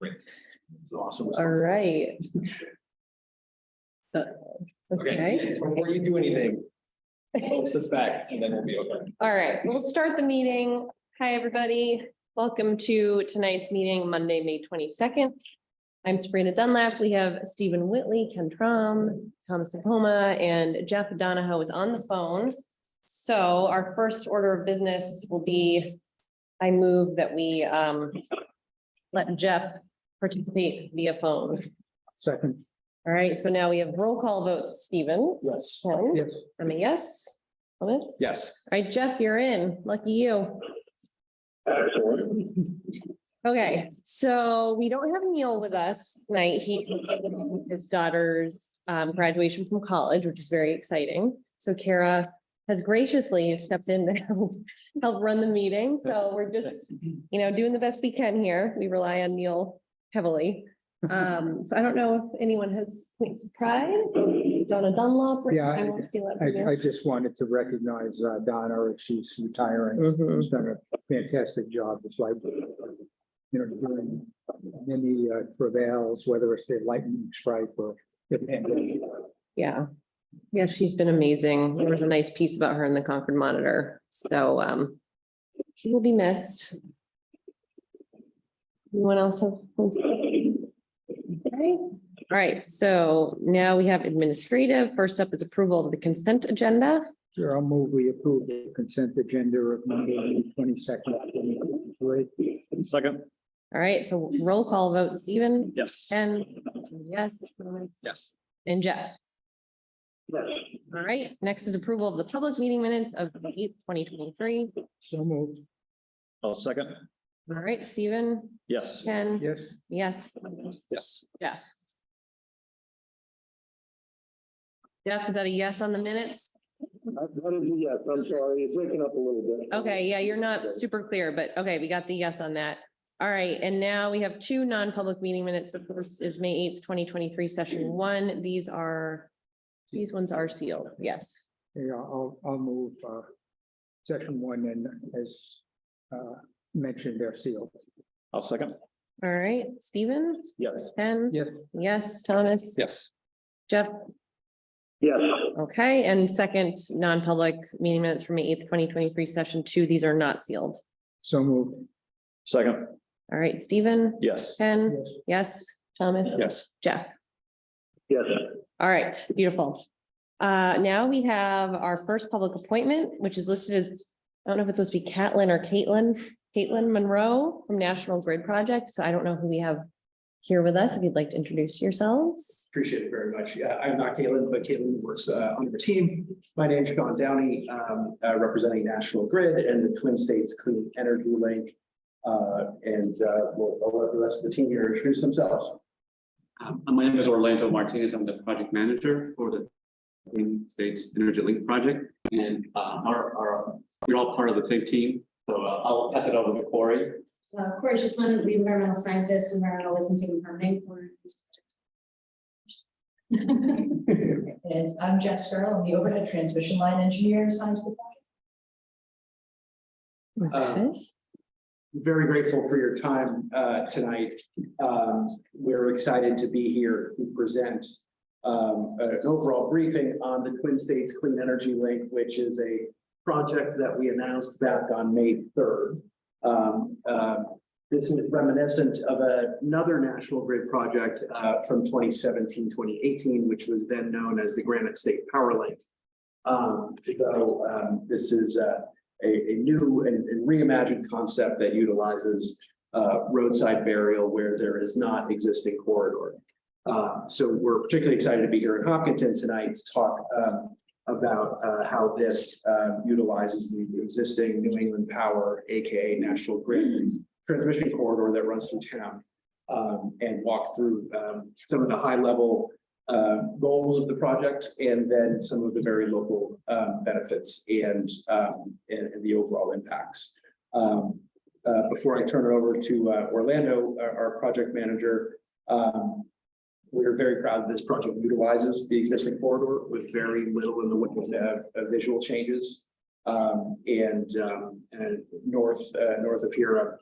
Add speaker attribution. Speaker 1: It's awesome.
Speaker 2: All right. Uh,
Speaker 1: Okay,
Speaker 2: Okay,
Speaker 1: before you do anything, post this back and then we'll be okay.
Speaker 2: all right, we'll start the meeting. Hi, everybody. Welcome to tonight's meeting, Monday, May twenty-second. I'm Sabrina Dunlap. We have Stephen Whitley, Ken Trom, Thomas Homa, and Jeff Donahoe is on the phone. So our first order of business will be, I move that we um let Jeff participate via phone.
Speaker 1: Second.
Speaker 2: All right, so now we have roll call votes. Stephen?
Speaker 1: Yes.
Speaker 2: Ken?
Speaker 1: Yes.
Speaker 2: I'm a yes. Thomas?
Speaker 1: Yes.
Speaker 2: All right, Jeff, you're in. Lucky you.
Speaker 1: Excellent.
Speaker 2: Okay, so we don't have Neil with us tonight. He, his daughter's um, graduation from college, which is very exciting. So Kara has graciously stepped in to help, help run the meeting. So we're just, you know, doing the best we can here. We rely on Neil heavily. Um, so I don't know if anyone has points of pride. Donna Dunlop.
Speaker 3: Yeah,
Speaker 2: I want to see what.
Speaker 3: I, I just wanted to recognize uh, Donna, if she's retiring,
Speaker 2: Mhm.
Speaker 3: she's done a fantastic job, it's like, you know, during many uh, travails, whether it's the lightning strike or the pandemic.
Speaker 2: Yeah. Yeah, she's been amazing. There was a nice piece about her in the Concord Monitor, so um. She will be missed. Anyone else have? points? Okay. All right, so now we have administrative. First up is approval of the consent agenda.
Speaker 3: Sure, I'll move, we approve the consent agenda of Monday, twenty-second, twenty twenty-three.
Speaker 1: Second.
Speaker 2: All right, so roll call vote, Stephen,
Speaker 1: Yes.
Speaker 2: Ken, yes,
Speaker 1: Yes.
Speaker 2: and Jeff. All right, next is approval of the public meeting minutes of eight twenty twenty-three.
Speaker 3: So moved,
Speaker 1: Oh, second.
Speaker 2: All right, Stephen,
Speaker 1: Yes.
Speaker 2: Ken.
Speaker 3: yes,
Speaker 2: Yes,
Speaker 1: Yes.
Speaker 2: Jeff. Jeff, is that a yes on the minutes?
Speaker 4: Yes, I'm sorry, it's waking up a little bit.
Speaker 2: Okay, yeah, you're not super clear, but okay, we got the yes on that. All right, and now we have two non-public meeting minutes. The first is May eighth, twenty twenty-three, session one. These are, these ones are sealed, yes.
Speaker 3: yeah, I'll, I'll move, uh, session one and as, uh, mentioned, they're sealed.
Speaker 1: I'll second.
Speaker 2: All right, Stephen,
Speaker 1: Yes.
Speaker 2: Ken?
Speaker 3: Yes.
Speaker 2: Yes, Thomas?
Speaker 1: Yes.
Speaker 2: Jeff?
Speaker 4: Yes,
Speaker 2: Okay, and second, non-public meeting minutes for May eighth, twenty twenty-three, session two. These are not sealed.
Speaker 3: So moved,
Speaker 1: Second.
Speaker 2: All right, Stephen?
Speaker 1: Yes.
Speaker 2: Ken?
Speaker 3: yes.
Speaker 2: Yes, Thomas?
Speaker 1: Yes.
Speaker 2: Jeff?
Speaker 4: yes,
Speaker 2: All right, beautiful. Uh, now we have our first public appointment, which is listed as, I don't know if it's supposed to be Catlin or Caitlin, Caitlin Monroe from National Grid Project. So I don't know who we have here with us, if you'd like to introduce yourselves.
Speaker 5: Appreciate it very much. Yeah, I'm not Caitlin, but Caitlin works uh, on your team. My name is Sean Downey, um, uh, representing National Grid and the Twin States Clean Energy Link. Uh, And uh, we'll I'll let the rest of the team here introduce themselves.
Speaker 6: Um, My name is Orlando Martinez. I'm the project manager for the Green States Energy Link Project. And uh, our, our, we're all part of the same team. So uh, I'll pass it over to Corey.
Speaker 7: Uh, Corey Schitzman, the environmental scientist, environmentalist and city planning for this project.
Speaker 8: And I'm Jess Farrell, I'm the overhead transmission line engineer assigned to the project.
Speaker 5: Uh, very grateful for your time uh, tonight. Um, We're excited to be here to present um, an overall briefing on the Twin States Clean Energy Link, which is a project that we announced back on May 3rd. Um, uh, This is reminiscent of another National Grid project uh, from 2017, 2018, which was then known as the Granite State Power Link. Um, So um, this is uh, a, a new and and reimagined concept that utilizes uh, roadside burial where there is not existing corridor. Uh, so we're particularly excited to be here in Hopkinton tonight to talk um, about uh, how this uh, utilizes the existing New England Power, AKA National Grid transmission corridor that runs through town. um, and walk through um, some of the high level uh, goals of the project and then some of the very local um, benefits and, um, and and the overall impacts. Um, uh, Before I turn it over to uh, Orlando, our, our project manager, um, we are very proud that this project utilizes the existing corridor with very little in the way of- of visual changes. Um, And, um, and north, uh, north of here,